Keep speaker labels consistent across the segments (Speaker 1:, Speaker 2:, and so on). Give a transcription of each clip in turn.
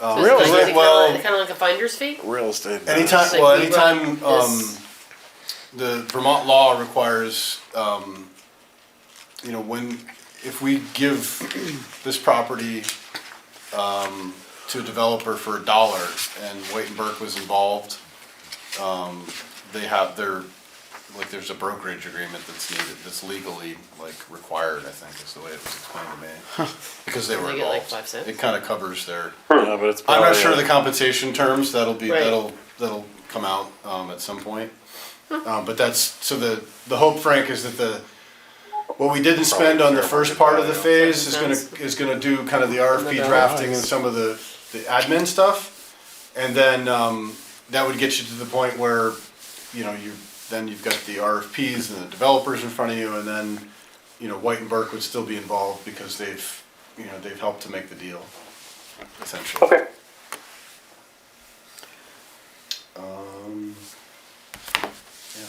Speaker 1: Um,
Speaker 2: Really?
Speaker 3: It's like,
Speaker 1: Well-
Speaker 3: kind of like a finder's fee?
Speaker 2: Real estate.
Speaker 1: Anytime,
Speaker 3: It's like
Speaker 1: well,
Speaker 3: we
Speaker 1: anytime,
Speaker 3: brought
Speaker 1: um,
Speaker 3: this-
Speaker 1: the Vermont law requires, um, you know, when, if we give this property, um, to a developer for a dollar, and White and Burke was involved, um, they have their, like, there's a brokerage agreement that's needed, that's legally, like, required, I think, is the way it was explained to me. Because they were
Speaker 3: They get, like,
Speaker 1: involved.
Speaker 3: five cents?
Speaker 1: It kinda covers their.
Speaker 2: Oh, Yeah, but it's
Speaker 1: I'm not
Speaker 2: probably-
Speaker 1: sure of the compensation terms, that'll be,
Speaker 3: Right.
Speaker 1: that'll, that'll come out, um, at some point. Um, but that's, so the, the hope, Frank, is that the, what we didn't spend on the first part of the phase is gonna, is gonna do kind of the RFP drafting and some of the, the admin stuff. And then, um, that would get you to the point where, you know, you, then you've got the RFPs and the developers in front of you, and then, you know, White and Burke would still be involved because they've, you know, they've helped to make the deal, essentially.
Speaker 4: Okay.
Speaker 1: Um, yeah.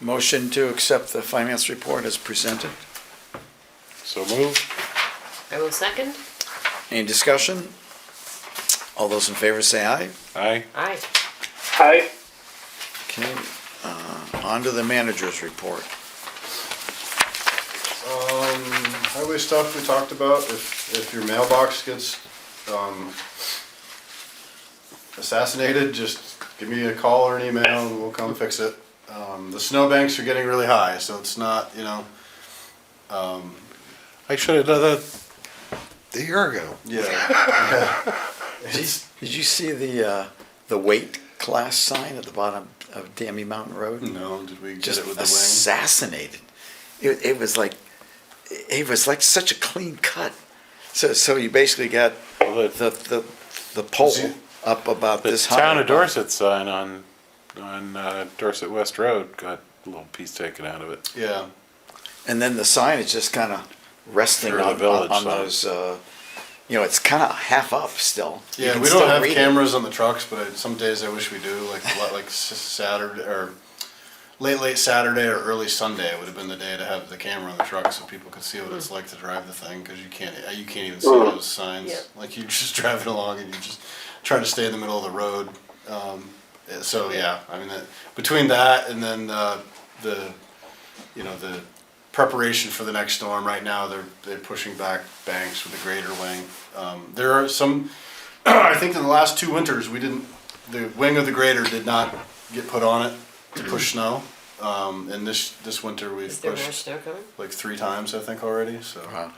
Speaker 5: Motion to accept the finance report as presented.
Speaker 2: So move.
Speaker 3: I will second.
Speaker 5: Any discussion? All those in favor say aye.
Speaker 2: Aye.
Speaker 3: Aye.
Speaker 4: Hi.
Speaker 5: Okay, uh, on to the manager's report.
Speaker 1: Um, highway stuff we talked about, if, if your mailbox gets, um, assassinated, just give me a call or an email and we'll come fix it. Um, the snowbanks are getting really high, so it's not, you know,
Speaker 2: I should have done that a year ago.
Speaker 1: yeah.
Speaker 5: Did did you see the, uh, the weight class sign at the bottom of Dammy Mountain Road?
Speaker 1: No, Mm. did we get
Speaker 5: Just
Speaker 1: it with the wing?
Speaker 5: assassinated. It, it was like, it was like such a clean cut. So, so you basically got
Speaker 2: Well, The
Speaker 5: the, the, the pole up about
Speaker 2: the
Speaker 5: this.
Speaker 2: town
Speaker 5: high.
Speaker 2: of Dorset sign on, on uh, Dorset West Road got a little piece taken out of it.
Speaker 1: Yeah,
Speaker 5: And then the sign is just kind of resting
Speaker 2: Sure, the
Speaker 5: on, on
Speaker 2: village
Speaker 5: on
Speaker 2: sign.
Speaker 5: those, uh, you know, it's kind of half up still. You
Speaker 1: yeah,
Speaker 5: can
Speaker 1: we don't
Speaker 5: still
Speaker 1: have
Speaker 5: read it.
Speaker 1: cameras on the trucks, but I- some days I wish we do, like, a lot- like s- Saturday, or late, late Saturday or early Sunday would have been the day to have the camera on the truck so people could see what it's
Speaker 5: Hmm.
Speaker 1: like to drive the thing because you can't uh, you can't even see those signs.
Speaker 3: Yeah.
Speaker 1: Like you're just driving along and you're just trying to stay in the middle of the road. Um, eh, so yeah, I mean that, between that and then uh, the you know the preparation for the next storm right now they're they're pushing back banks with a greater wing. Um, there are some I think in the last two winters we didn't the wing of the grader did not get put on it to push snow. Um, and this this winter we've
Speaker 3: Is there more
Speaker 1: pushed
Speaker 3: snow coming?
Speaker 1: like three times I think already. So
Speaker 5: Wow.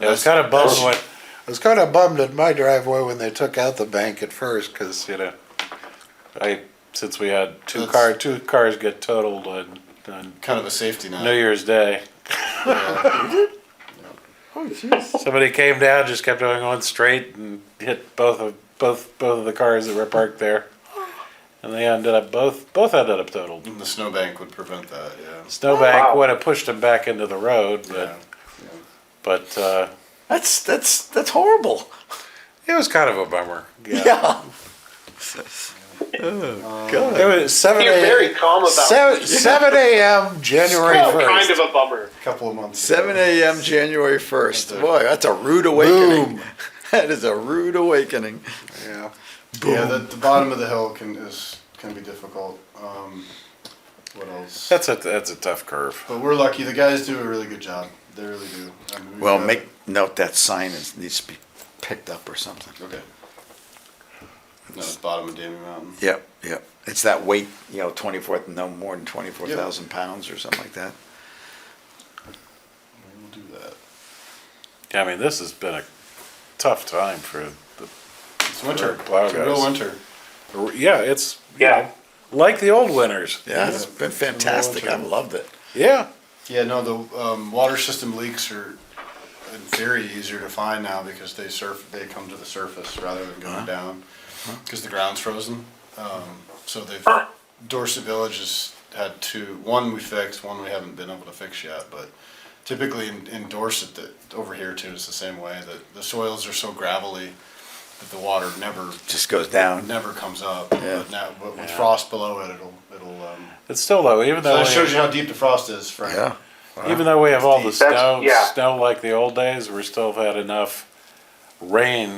Speaker 2: Yeah, I was kind of bummed
Speaker 1: That's-
Speaker 2: when,
Speaker 6: I was kind of bummed at my driveway when they took out the bank at first, because
Speaker 2: you know, I, since we had two
Speaker 1: That's-
Speaker 2: car, two cars get totaled on, on
Speaker 1: kind of a safety net.
Speaker 2: New Year's Day.
Speaker 5: Oh,
Speaker 2: Somebody came down, just kept on going straight and hit both of both both of the cars that were parked there, and they ended up both both ended up totaled.
Speaker 1: And the snowbank would prevent that. Yeah.
Speaker 2: Snowbank
Speaker 4: Wow.
Speaker 2: would have pushed them back into the road, but
Speaker 1: Yeah.
Speaker 2: but uh,
Speaker 5: That's, that's, that's horrible.
Speaker 2: it was kind of a bummer.
Speaker 5: Yeah.
Speaker 2: It was seven
Speaker 4: You're very
Speaker 2: a.m.
Speaker 4: calm about
Speaker 2: Seven,
Speaker 4: it.
Speaker 2: 7 a.m. January
Speaker 4: Well,
Speaker 2: first.
Speaker 4: kind of a bummer.
Speaker 1: Couple of months.
Speaker 5: Seven
Speaker 1: ago.
Speaker 5: AM, January first. Boy, that's a rude awakening. That is a rude awakening.
Speaker 6: yeah,
Speaker 1: Yeah, the, the bottom of the hill can is can be difficult. Um, what else?
Speaker 2: That's a that's a tough curve.
Speaker 1: But we're lucky. The guys do a really good job. They really do. I mean, we've
Speaker 5: Well,
Speaker 1: got-
Speaker 5: make note that sign is, needs to be picked up or something.
Speaker 1: okay. No, it's bottom of Damien Mountain.
Speaker 5: Yep, yep. It's that weight, you know, twenty-four, no more than twenty-four thousand pounds or something like that.
Speaker 1: We will do that.
Speaker 2: I mean, this has been a tough time for the
Speaker 1: It's winter.
Speaker 2: Wow,
Speaker 1: it's a real
Speaker 2: guys.
Speaker 1: winter.
Speaker 2: yeah. It's
Speaker 4: Yeah.
Speaker 2: like the old winters.
Speaker 5: Yeah, it's been fantastic. I've loved it.
Speaker 2: Yeah.
Speaker 1: Yeah, no, the um, water system leaks are in theory easier to find now because they surf, they come to the surface rather than going
Speaker 5: Uh-huh.
Speaker 1: down because the ground's frozen. Um, so they've Dorset Village has had two. One we fixed, one we haven't been able to fix yet. But typically in, in Dorset, that over here too, it's the same way that the soils are so gravelly that the water never
Speaker 5: Just goes down.
Speaker 1: never comes up.
Speaker 5: Yeah.
Speaker 1: But now, but with
Speaker 2: Yeah.
Speaker 1: frost below it, it'll it'll. Um,
Speaker 2: It's still though, even
Speaker 1: so
Speaker 2: though
Speaker 1: that shows
Speaker 2: we,
Speaker 1: you how deep the frost is, Frank.
Speaker 5: Yeah.
Speaker 2: even though we have all the
Speaker 4: That's-
Speaker 2: snow,
Speaker 4: yeah.
Speaker 2: snow like the old days, we're still had enough rain